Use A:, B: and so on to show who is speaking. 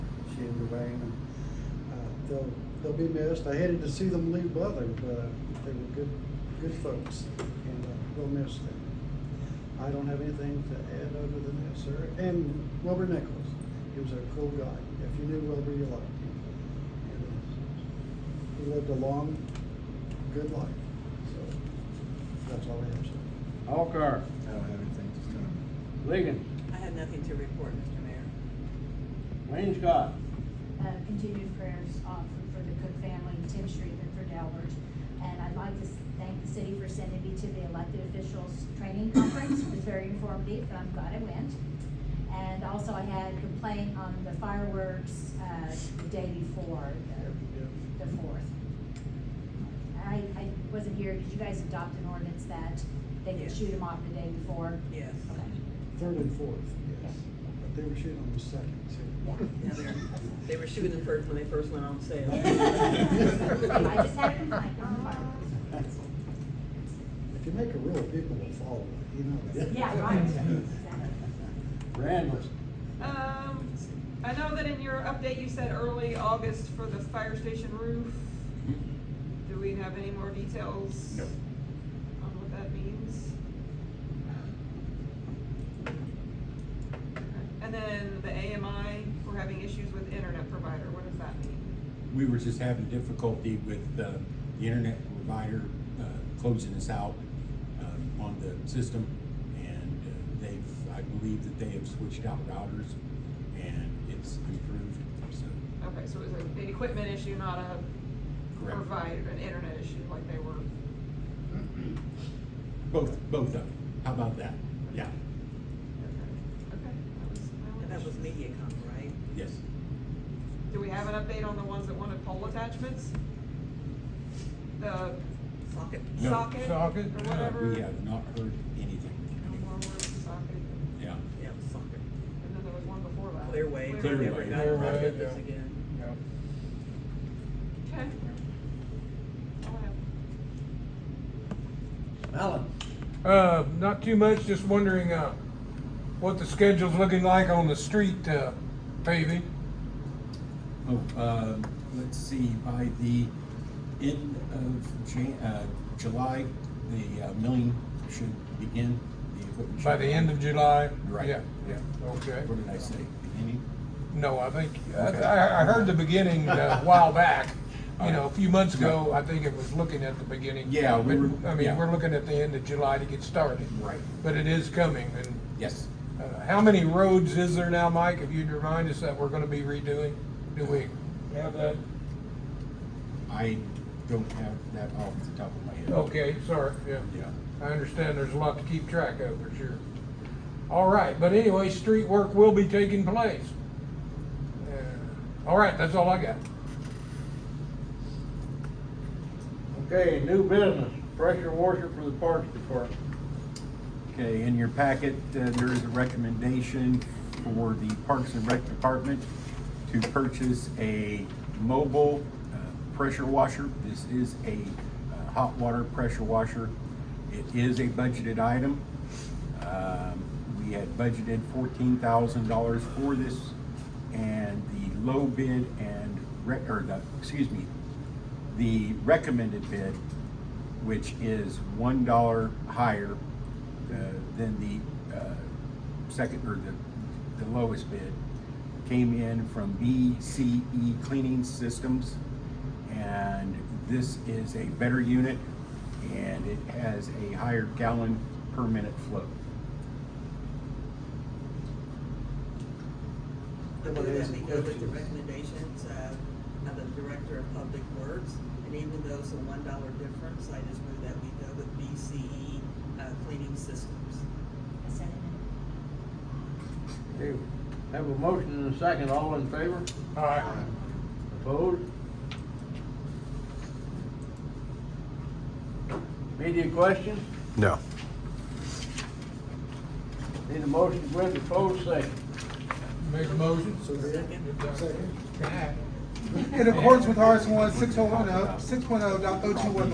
A: underway. And, uh, they'll, they'll be missed. I hated to see them leave Butler, but uh, they were good, good folks, and uh, we'll miss them. I don't have anything to add other than that, sir. And Wilbur Nichols, he was a cool guy. If you knew Wilbur, you liked him. And, uh, He lived a long, good life, so that's all I have, sir.
B: Alcar,
C: I don't have anything this time.
B: Ligon,
D: I have nothing to report, Mr. Mayor.
B: Wayne Scott,
E: uh, continued prayers uh, for- for the Cook family, Tim Shriven for Delbert. And I'd like to s- thank the city for sending me to the elected officials training conference. It was very informative, and I'm glad I went. And also I had complaint on the fireworks uh, the day before, the- the fourth. I, I wasn't here, did you guys adopt an ordinance that they could
D: Yes.
E: shoot them off the day before?
D: Yes.
E: Okay.
A: Third and fourth, yes. But they were shooting on the second, too.
D: Now they're- They were shooting the first when they first went on sale.
E: I just had a complaint on the fireworks.
A: If you make a rule, people will follow it, you know. that.
E: Yeah, right. Exactly.
B: Randall's.
F: Um, I know that in your update, you said early August for the fire station roof. Do we have any more details?
C: No.
F: On what that means? And then the AMI, we're having issues with internet provider, what does that mean?
G: we were just having difficulty with uh, the internet provider uh, closing us out um, on the system. And uh, they've, I believe that they have switched out routers and it's improved, so.
F: Okay, so it's an equipment issue, not a
G: correct.
F: provider, an internet issue like they were.
G: Both, both of them. How about that? Yeah,
F: Okay, okay, that was my only
D: And that was
F: issue.
D: MediaCom, right?
G: yes.
F: Do we have an update on the ones that wanted pole attachments? The
D: Socket.
G: No.
F: socket?
C: Socket?
F: Or
G: Uh,
F: whatever?
G: We have not heard anything.
F: No more words for socket.
G: Yeah.
D: Yeah, it was socket.
F: And then there was one before that.
D: Clearway.
G: Clearway.
D: We never got
C: Clearway,
D: around to this
C: yeah.
D: again.
C: Yep.
F: Okay. All right.
B: Alan.
H: Uh, not too much, just wondering, uh, what the schedule's looking like on the street, uh, paving.
G: Oh, uh, let's see, by the end of Jan, uh, July, the uh, milling should begin. The equipment should
H: By the end of July?
G: Right.
H: Yeah, yeah, okay.
G: What did I say, beginning?
H: No, I think, I,
G: Okay.
H: I I heard the beginning uh, a while back, you know, a few months ago,
G: Yeah.
H: I think it was looking at the beginning.
G: Yeah, we
H: But,
G: were-
H: I
G: yeah.
H: mean, we're looking at the end of July to get started.
G: Right.
H: But it is coming, and,
G: Yes,
H: uh, how many roads is there now, Mike, if you'd remind us that we're gonna be redoing? Do we have that?
G: I don't have that off the top of my head.
H: Okay, sorry, yeah.
G: Yeah,
H: I understand there's a lot to keep track of, for sure. All right, but anyway, street work will be taking place. Uh, All right, that's all I got.
B: Okay, new business, pressure washer for the parks department.
G: okay, in your packet, uh, there is a recommendation for the Parks and Rec Department to purchase a mobile uh, pressure washer. This is a uh, hot water pressure washer. It is a budgeted item. Um, We had budgeted fourteen thousand dollars for this, and the low bid and, rec- or the, excuse me, the recommended bid, which is one dollar higher uh, than the uh, second, or the, the lowest bid, came in from BCE Cleaning Systems. And this is a better unit, and it has a higher gallon per minute flow.
D: I
A: Well,
D: move
A: there's
D: that we
A: some
D: go with the
A: questions.
D: recommendations of, of the Director of Public Works, and even though it's a one dollar difference, I just move that we go with BCE, uh, cleaning systems.
E: I said it.
B: Okay, Have a motion and a second, all in favor?
H: All right.
B: Opposed? Media questions?
C: No.
B: Need a motion to go into closed session.
H: Make a motion?
A: So, yeah, second.
I: In accordance with RS one six oh one oh, six one oh dot oh two one, the